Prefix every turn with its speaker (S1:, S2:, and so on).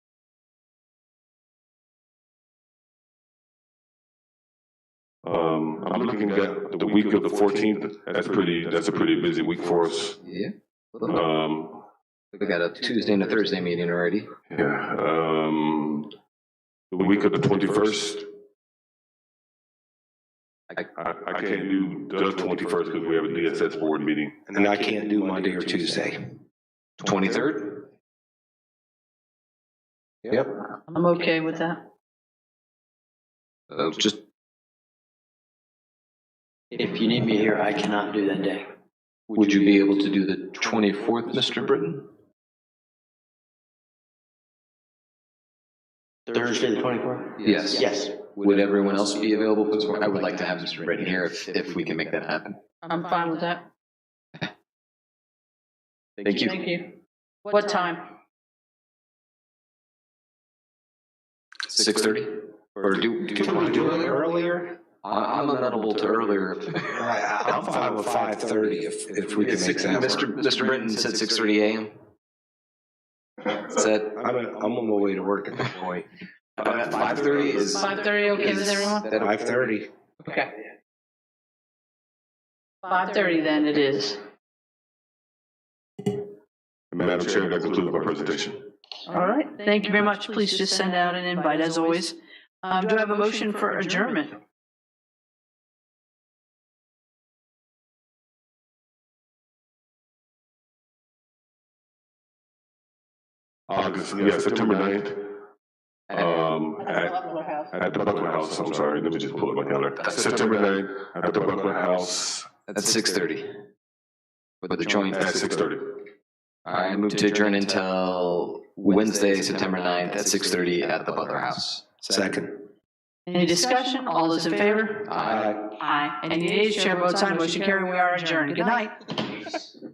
S1: Um, I'm looking at the week of the fourteenth. That's pretty, that's a pretty busy week for us.
S2: Yeah.
S1: Um,
S2: We got a Tuesday and a Thursday meeting already.
S1: yeah, um, the week of the twenty-first. I, I can't do the twenty-first because we have a DSS board meeting.
S3: And I can't do Monday or Tuesday.
S2: Twenty-third?
S3: Yep.
S4: I'm okay with that.
S2: Uh, just,
S5: If you need me here, I cannot do that day.
S2: would you be able to do the twenty-fourth, Mr. Britton?
S5: Thursday, the twenty-fourth?
S2: Yes.
S5: Yes.
S2: Would everyone else be available for this one? I would like to have Mr. Britton here if, if we can make that happen.
S4: I'm fine with that.
S2: Thank you.
S4: Thank you. What time?
S2: Six thirty? Or do, do you want to do
S3: it
S2: earlier?
S3: earlier?
S2: I- I'm amenable to earlier.
S3: I- I'm fine with five thirty if, if we can make that
S2: Mr.
S3: work.
S2: Mr. Britton said six thirty AM? Is that,
S3: I'm, I'm on my way to work at that point.
S2: uh, five thirty is, is
S4: 5:30 okay with everyone?
S2: that
S3: Five thirty.
S4: Okay. 5:30 then it is.
S1: Madam Chair, that concludes my presentation.
S4: All right, thank you very much. Please just send out an invite as always. Um, do I have a motion for adjournment?
S1: August, yeah, September ninth. Um, at, at the Buckland House, I'm sorry, let me just pull up my calendar. September ninth, at the Buckland House
S2: That's six thirty. With the joint.
S1: at six thirty.
S2: I move to adjourn until Wednesday, September ninth at six thirty at the Butler House.
S3: Second.
S4: Any discussion? All those in favor?
S2: Aye.
S4: Aye. Any nays? Chair votes aye. Motion carried. We are adjourned. Good night.